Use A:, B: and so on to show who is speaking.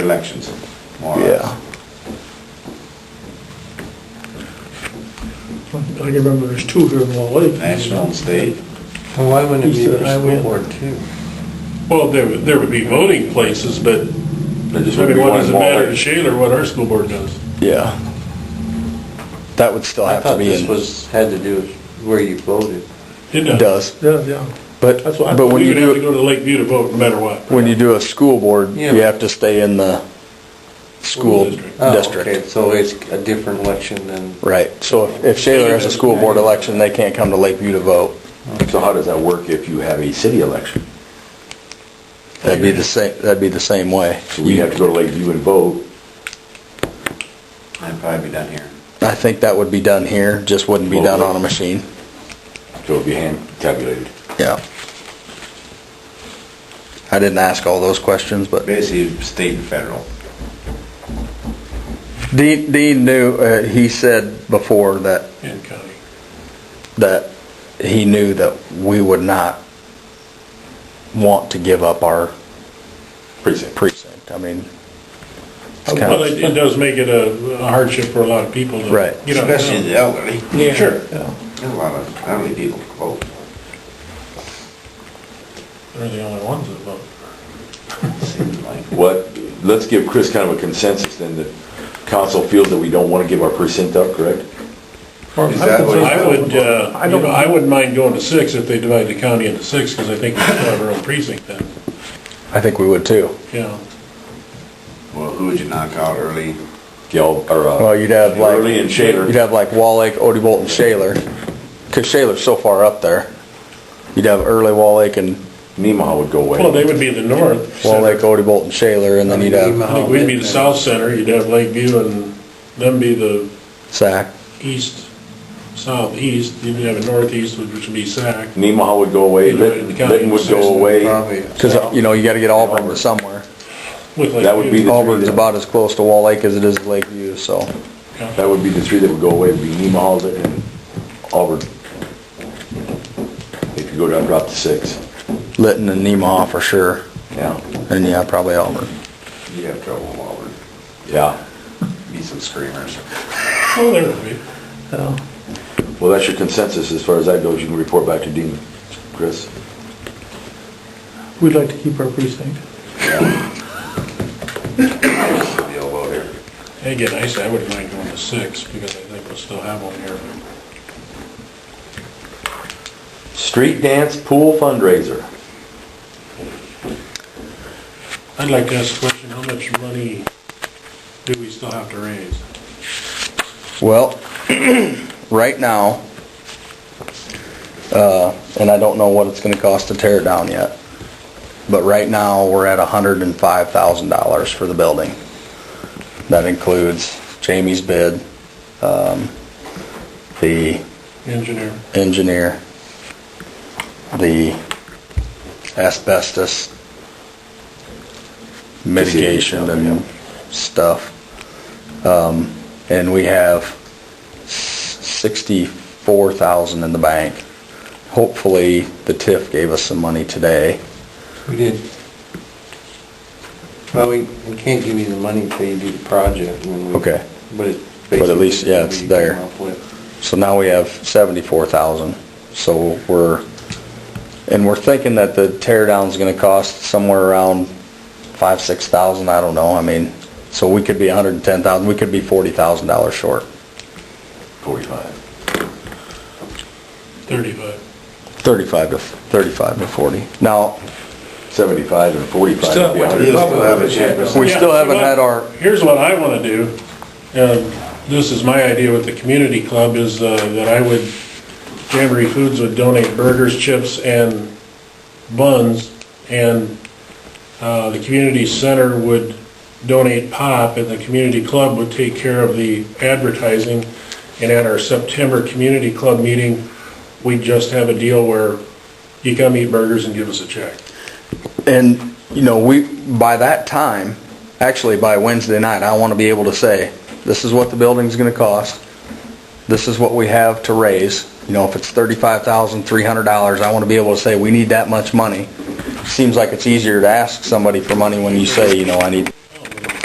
A: elections, more or
B: Yeah.
A: less.
C: I can remember there's two here in Wall Lake.
A: National and state.
D: Well, why wouldn't it be
C: East of
D: the
C: the
D: school
C: highway.
D: board too?
E: Well, there, would- there would be voting places, but,
B: There just
E: I
B: would
E: mean,
B: be
E: what
B: one
E: does it
B: wall
E: matter
B: there.
E: to Shaler what our school board does?
B: Yeah. That would still
D: I
B: have to
D: thought
B: be
D: this
B: in,
D: was, had to do with where you voted.
E: It
B: it
E: does.
B: does,
C: Yeah, yeah.
B: but,
C: That's what I-
B: but when
E: We
B: you
E: would have to
B: do,
E: go to Lakeview to vote no matter what.
B: when you do a school board,
D: Yeah.
B: you have to stay in the school
E: district.
D: Oh,
B: district.
D: okay, So it's a different election than,
B: Right, so if- if Shaler has a school board election, they can't come to Lakeview to vote.
A: So how does that work if you have a city election?
B: That'd be the same, that'd be the same way.
A: So we have to go to Lakeview and vote? I'd probably be done here.
B: I think that would be done here, just wouldn't be done on a machine.
A: So it'd be hand calculated.
B: Yeah. I didn't ask all those questions, but
A: Basically, state and federal.
B: Dean, Dean knew, uh, he said before that,
E: And county.
B: that he knew that we would not want to give up our
A: Precinct.
B: precinct. I mean, it's kind
E: Well,
B: of,
E: it, it does make it a a hardship for a lot of people to.
B: Right.
E: get out of
A: Especially the elderly.
E: Yeah.
A: Sure. There's a lot of elderly people Oh. who vote.
E: town. They're the only ones that vote.
A: seems like.
F: What, let's give Chris kind of a consensus then that council feels that we don't want to give our precinct up, correct?
A: Is that what
E: I would, uh,
C: I
E: you know, I
C: don't,
E: wouldn't mind going to six if they divide the county into six, because I think we still have our own precinct then,
B: I think we would too.
E: yeah.
A: Well, who would you knock out early?
F: Y'all, or,
B: Well,
F: uh,
B: you'd have
F: Early and
B: like, you'd
F: Shaler,
B: have like Wall Lake, Odie Bolton, Shaler, because Shaler's so far up there. You'd have early Wall Lake and
F: Nemaha would go
E: Well, they
F: away.
E: would be the north.
B: Wall Lake,
E: center.
B: Odie Bolton, Shaler, and then you'd
E: I
B: have
E: think we'd be the south center, you'd have Lakeview and them be the
B: Sac.
E: east, southeast, you'd have a northeast, which would be Sac.
F: Nemaha would go away,
E: Either way, the
F: Lit-
E: county
F: Litton would
E: decision
F: go
E: would
F: away.
D: probably,
B: Because, you know, you gotta get Auburn to somewhere.
E: with
F: That would be
E: Lakeview.
F: the-
B: Auburn's about as close to Wall Lake as it is to Lakeview, so.
F: That would be the three that would go away, would be Nemaha, Litton, and Auburn. If you go down, drop to six,
B: Litton and Nemaha for sure,
F: yeah,
B: and yeah, probably Auburn.
A: You'd have trouble in Auburn.
F: yeah.
A: Be some screamers.
E: Oh, there would be.
F: Well, that's your consensus as far as that goes, you can report back to Dean, Chris.
C: we'd like to keep our precinct.
A: They'll vote here.
E: Again, I said I wouldn't mind going to six, because I think we'll still have one here.
F: Street dance pool fundraiser.
E: I'd like to ask a question, how much money do we still have to raise?
B: Well, right now, uh, and I don't know what it's gonna cost to tear it down yet, but right now, we're at hundred and five thousand dollars for the building. That includes Jamie's bid, um, the
E: Engineer,
B: engineer, the asbestos mitigation and stuff. Um, And we have sixty-four thousand in the bank. Hopefully, the TIF gave us some money today.
D: we did. Well, we, we can't give you the money until you do the project. and then we-
B: Okay.
D: But it's.
B: But at least, yeah,
D: basically
B: it's
D: what you
B: there.
D: come up with.
B: So now we have seventy-four thousand, so we're, and we're thinking that the tear down's gonna cost somewhere around five, six thousand, I don't know, I mean, so we could be a hundred and ten thousand, we could be forty thousand dollars short,
F: Forty-five.
E: thirty-five.
B: thirty-five to, thirty-five to forty. Now,
F: Seventy-five and forty-five. would
E: Still,
F: be
E: what
F: a hundred.
A: You still have a chance.
B: we
E: Yeah,
B: still haven't
E: well,
B: had our,
E: Here's what I want to do. Um, This is my idea with the community club is uh, that I would, Jamboree Foods would donate burgers, chips, and buns, and uh, the community center would donate pop, and the community club would take care of the advertising. And at our September community club meeting, we'd just have a deal where you come eat burgers and give us a check.
B: And, you know, we, by that time, actually by Wednesday night, I want to be able to say, this is what the building's going to cost. This is what we have to raise. You know, if it's thirty-five thousand, three hundred dollars, I want to be able to say, we need that much money. Seems like it's easier to ask somebody for money when you say, you know, I need